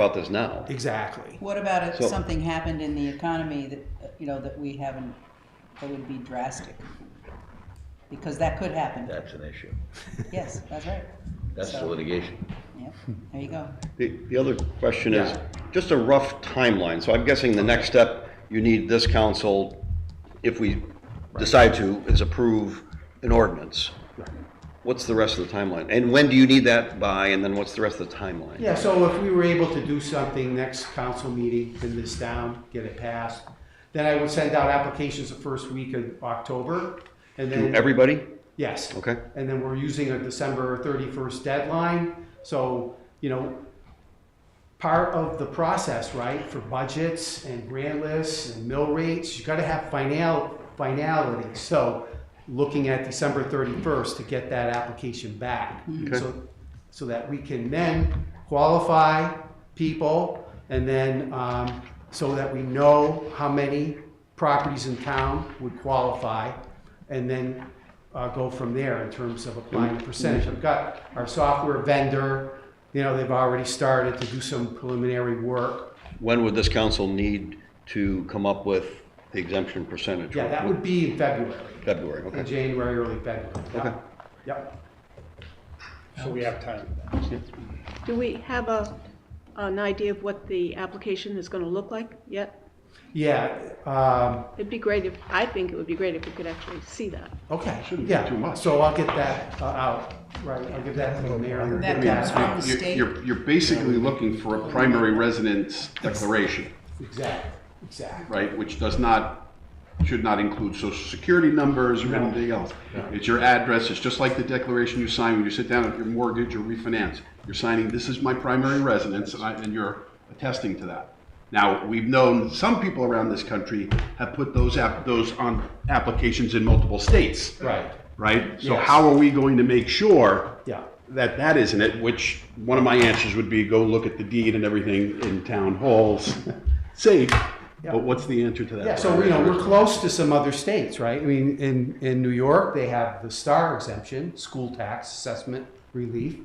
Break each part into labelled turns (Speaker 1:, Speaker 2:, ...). Speaker 1: about this now.
Speaker 2: Exactly.
Speaker 3: What about if
Speaker 1: So-
Speaker 3: something happened in the economy that, uh, you know, that we haven't, that would be drastic? Because that could happen.
Speaker 4: That's an issue.
Speaker 3: Yes, that's right.
Speaker 4: That's
Speaker 3: So-
Speaker 4: litigation.
Speaker 3: Yep, there you go.
Speaker 1: The, the other question is,
Speaker 2: Yeah.
Speaker 1: just a rough timeline, so I'm guessing the next step, you need this council, if we decide to, is approve an ordinance. What's the rest of the timeline? And when do you need that by, and then what's the rest of the timeline?
Speaker 2: Yeah, so if we were able to do something next council meeting, pin this down, get it passed, then I would send out applications the first week of October. And
Speaker 1: To
Speaker 2: then,
Speaker 1: everybody?
Speaker 2: yes.
Speaker 1: Okay.
Speaker 2: And then we're using a December thirty-first deadline, so, you know, part of the process, right, for budgets and grant lists and mill rates, you gotta have final, finality. So, looking at December thirty-first to get that application back.
Speaker 1: Okay.
Speaker 2: So, so that we can then qualify people and then, um, so that we know how many properties in town would qualify and then, uh, go from there in terms
Speaker 3: Mm-hmm.
Speaker 2: of applying the percentage. I've got our software vendor, you know, they've already started to do some preliminary work.
Speaker 1: When would this council need to come up with the exemption percentage?
Speaker 2: Yeah, that would be in February,
Speaker 1: February,
Speaker 2: in
Speaker 1: okay.
Speaker 2: January, early February. Yeah.
Speaker 1: Okay.
Speaker 2: Yep.
Speaker 5: So we have time.
Speaker 6: Do we have a, an idea of what the application is gonna look like yet?
Speaker 2: Yeah, um,
Speaker 6: It'd be great if, I think it would be great if we could actually see that.
Speaker 2: okay, yeah, so I'll get that uh, out, right, I'll give that to the mayor.
Speaker 3: That
Speaker 2: Give me
Speaker 3: comes
Speaker 2: that.
Speaker 3: from the
Speaker 7: You're,
Speaker 3: state.
Speaker 7: you're, you're basically looking for a primary residence declaration,
Speaker 2: Exactly, exactly.
Speaker 7: right, which does not, should not include social security numbers or anything else. It's your address, it's just like the declaration you sign when you sit down at your mortgage or refinance. You're signing, this is my primary residence, and I, and you're attesting to that. Now, we've known some people around this country have put those app, those on applications in multiple states,
Speaker 2: Right,
Speaker 7: right? So
Speaker 2: Yes.
Speaker 7: how are we going to make sure
Speaker 2: yeah,
Speaker 7: that that isn't it, which one of my answers would be go look at the deed and everything in town halls, safe.
Speaker 2: Yeah.
Speaker 7: But what's the answer to that?
Speaker 2: yeah, so, you know, we're close to some other states, right? I mean, in, in New York, they have the STAR exemption, school tax assessment relief,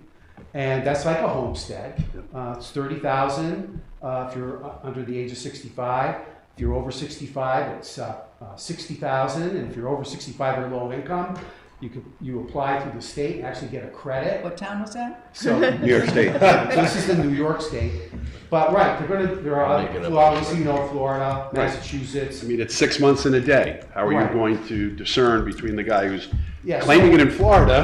Speaker 2: and that's like a homestead. Uh, It's thirty thousand, uh, if you're uh, under the age of sixty-five. If you're over sixty-five, it's uh, uh, sixty thousand, and if you're over sixty-five or low income, you could, you apply through the state, and actually get a credit.
Speaker 3: What town was that?
Speaker 2: So,
Speaker 1: New York State.
Speaker 2: So this is the New York state, but right, they're gonna, there are,
Speaker 4: Make it up.
Speaker 2: well, obviously, you know, Florida,
Speaker 7: Right.
Speaker 2: Massachusetts.
Speaker 7: I mean, it's six months and a day. How are you
Speaker 2: Right.
Speaker 7: going to discern between the guy who's
Speaker 2: Yeah, so-
Speaker 7: claiming it in Florida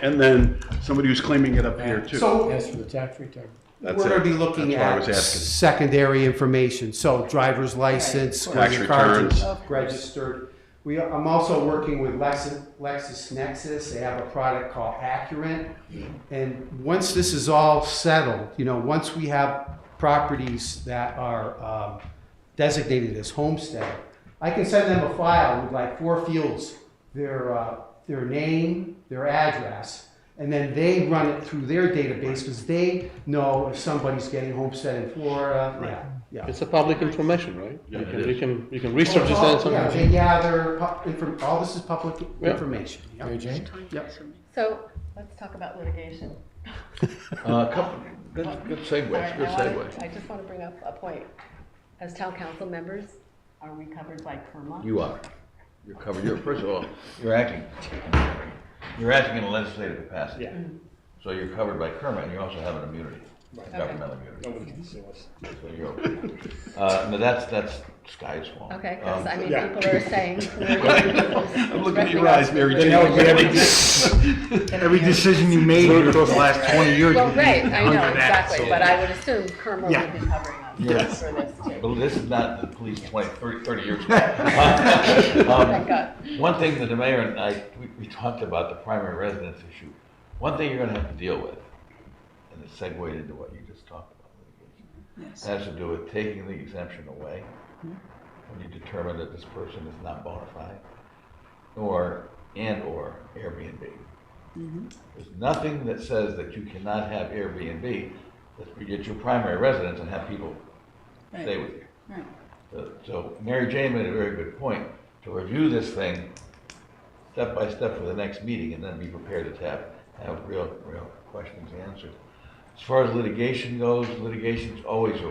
Speaker 7: and then somebody who's claiming it up here too?
Speaker 2: So
Speaker 5: As for the tax return.
Speaker 7: That's
Speaker 2: we're gonna
Speaker 7: it.
Speaker 2: be looking
Speaker 7: That's what I
Speaker 2: at
Speaker 7: was asking.
Speaker 2: secondary information, so driver's license,
Speaker 3: Right,
Speaker 7: of
Speaker 2: credit
Speaker 7: course. Tax
Speaker 2: cards,
Speaker 3: returns. Of course.
Speaker 2: registered. We, I'm also working with Lexis, LexisNexis, they have a product called Accurate. And once this is all settled, you know, once we have properties that are, um, designated as homestead, I can send them a file with like four fields, their, uh, their name, their address, and then they run it through their database, because they know if somebody's getting homestead in Florida, yeah, yeah.
Speaker 8: It's a public information, right?
Speaker 7: Yeah,
Speaker 8: You
Speaker 7: it
Speaker 8: can,
Speaker 7: is.
Speaker 8: you can, you can
Speaker 2: Well,
Speaker 8: research
Speaker 2: it's
Speaker 8: this
Speaker 2: all-
Speaker 8: also.
Speaker 2: Yeah, they gather, pu- inform- all this is public information. yeah.
Speaker 5: Mary Jane?
Speaker 2: Yep.
Speaker 9: So let's talk about litigation.
Speaker 4: Uh, couple, good, good segues,
Speaker 9: Alright,
Speaker 4: good
Speaker 9: I wanna-
Speaker 4: segue.
Speaker 9: I just want to bring up a point. As town council members, are we covered by PERMA?
Speaker 4: You are. You're covered. You're, first of all, you're acting, you're acting in a legislative capacity.
Speaker 5: Yeah.
Speaker 4: So you're covered by Kerma and you also have an immunity,
Speaker 5: Right.
Speaker 4: governmental immunity.
Speaker 5: Nobody can sue us.
Speaker 4: So you're okay. Uh, no, that's, that's sky's fault.
Speaker 9: Okay, because
Speaker 4: Um,
Speaker 9: I mean,
Speaker 5: yeah.
Speaker 9: people are saying. I'm
Speaker 7: I'm looking at your eyes, Mary
Speaker 5: They
Speaker 7: Jane.
Speaker 5: know you every
Speaker 3: Every
Speaker 5: decision you made over the last twenty years.
Speaker 9: Well, right, I know, exactly, but I would assume PERMA
Speaker 5: Yeah.
Speaker 9: would be covering us
Speaker 4: Yes.
Speaker 9: for this too.
Speaker 4: But this is not the police 20, 30, 30 years ago.
Speaker 9: Thank
Speaker 4: Um,
Speaker 9: God.
Speaker 4: One thing that the mayor and I, we, we talked about the primary residence issue. One thing you're gonna have to deal with, and it segued into what you just talked about, litigation,
Speaker 3: Yes.
Speaker 4: has to do with taking the exemption away when you determine that this person is not bona fide, or, and/or Airbnb. There's nothing that says that you cannot have Airbnb, that you get your primary residence and have people stay
Speaker 3: Right,
Speaker 4: with you.
Speaker 3: right.
Speaker 4: So- So Mary Jane made a very good point, to review this thing step by step for the next meeting and then be prepared to have, have real, real questions answered. As far as litigation goes, litigation's always a